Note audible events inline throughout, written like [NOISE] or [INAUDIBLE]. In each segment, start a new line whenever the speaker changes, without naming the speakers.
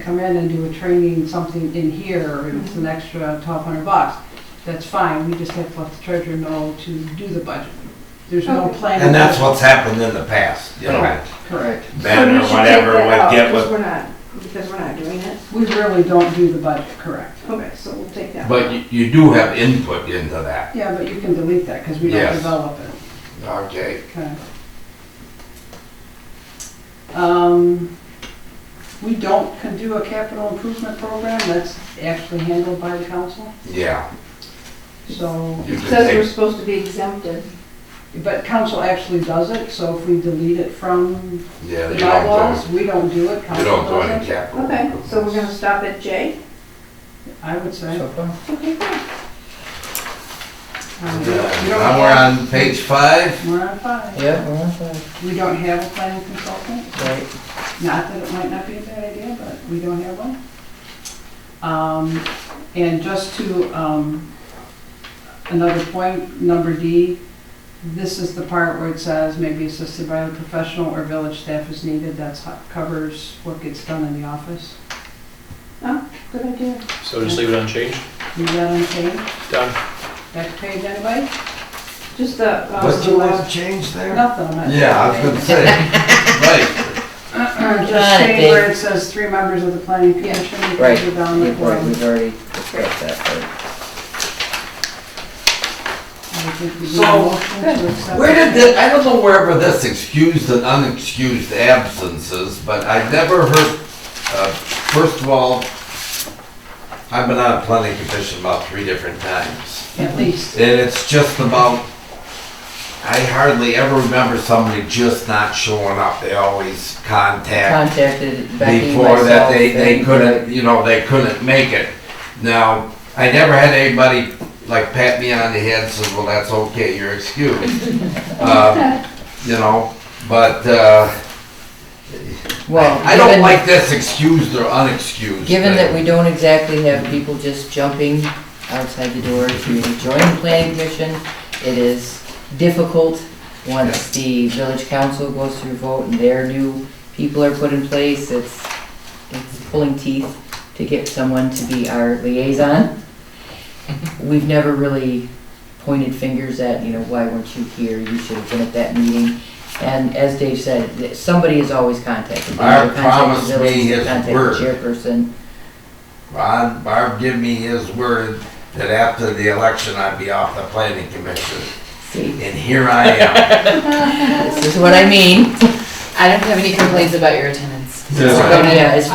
come in and do a training, something in here, and it's an extra twelve hundred bucks, that's fine, we just have to let the treasurer know to do the budget. There's no
Okay.
plan.
And that's what's happened in the past, you know,
Correct.
Correct.
Ben or whatever would get
Because
with,
we're not, because we're not doing it.
We really don't do the budget, correct.
Okay, so we'll take that.
but you, you do have input into that,
Yeah, but you can delete that, because we don't
Yes.
develop it.
okay?
Okay. Um, we don't can do a capital improvement program, that's actually handled by the council,
Yeah.
so,
you
It
can
says we're
take-
supposed to be exempted.
but council actually does it, so if we delete it from
Yeah,
the
you don't
bylaws, we don't do it,
do, you
council
don't do
does
any
it.
capital.
Okay, so we're gonna stop at J?
I would say.
So far.
Okay, good.
um, we don't- we don't
Now we're
have-
on page five,
We're on five.
Yeah, we're on five,
We don't have a planning consultant.
right.
Not that it might not be a bad idea, but we don't have one. Um, and just to, um, another point, number D, this is the part where it says maybe assisted by the professional or village staff is needed, that's, ho- covers what gets done in the office.
Good idea.
So just leave it unchanged?
Leave that unchanged,
Done.
back page anybody? uh,
Just the, um,
what's the last change there?
Nothing, I'm not.
Yeah, I was
[LAUGHS]
gonna say, right,
[CLEARS THROAT] Just saying where it says three members of the planning commission, we
Right,
can go down the
we've already,
board.
we've already discussed that part.
I think we need a
So,
motion to accept
where
it.
did this, I don't know wherever this excused and unexcused absences, but I've never heard, uh, first of all, I've been on a planning commission about three different times.
At least.
And it's just about, I hardly ever remember somebody just not showing up. They always contact
Contacted Becky,
before that
myself,
they, they
and-
couldn't, you know, they couldn't make it. Now, I never had anybody like pat me on the head and says, well, that's okay, you're excused.
[LAUGHS]
Um, You know, but, uh,
Well,
I don't
given-
like this excused or unexcused
Given that
thing.
we don't exactly have people just jumping outside the door to join the planning commission, it is difficult once the village council goes through vote and their new people are put in place, it's, it's pulling teeth to get someone to be our
[LAUGHS]
liaison. We've never really pointed fingers at, you know, why weren't you here, you should have been at that meeting. And as Dave said, th- somebody is always contacted. They
Barb
either
promised
contact the
me
village, they
his
contact the
word.
Chairperson,
Ron, Barb give me his word that after the election I'd be off the planning commission.
See,
And here I
[LAUGHS]
am.
this is what I mean.
I don't have any complaints about your attendance.
Yeah.
Yeah, it's for,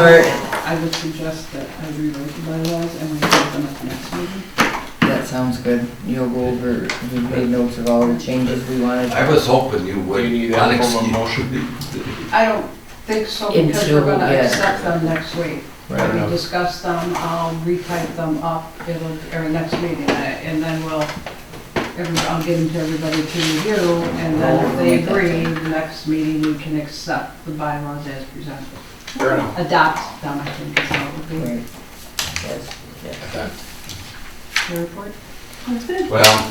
I would suggest that I rewrite the bylaws and we put them at the next meeting.
that sounds good. You'll go over, we made notes of all the changes we wanted.
I was hoping you would.
Do you need that in form of
unexcused-
motion?
I don't think so because we're
Until,
gonna
yeah.
accept them next week.
Right.
We'll discuss them, I'll retype them up, it'll, or next meeting, and then we'll, every- I'll get them to everybody to review. And then if they agree, the next meeting, we can accept the bylaws as presented.
Fair enough.
Adopt them, I think is how it would be.
Right. Yes, yes.
Your report? Oh,
That's good.
Well,
Are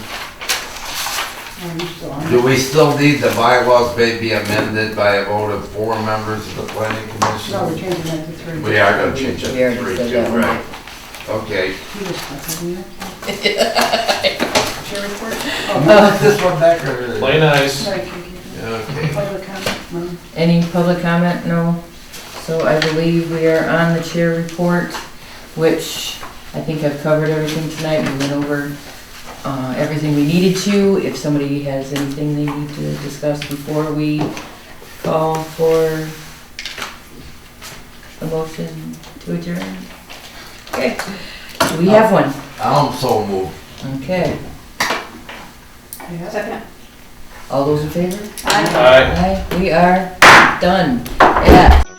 you Oh, still on?
do we still need the bylaws may be amended by a vote of four members of the planning
No, we're
commission?
changing that to three.
We are gonna change it
We already
to three,
said
too,
that one.
right? Okay.
You just stuck it in there. Your report?
Move [LAUGHS] This one back or?
Play nice.
Sorry, Kiki.
Okay.
Public comment, no?
Any public comment? No. So I believe we are on the chair report, which I think I've covered everything tonight. We went over uh, everything we needed to. If somebody has anything they need to discuss before we call for a motion to adjourn. Okay, we have one.
I'm so moved.
Okay,
Yeah.
Second.
all those in favor?
Aye.
Aye, we are done. Yeah.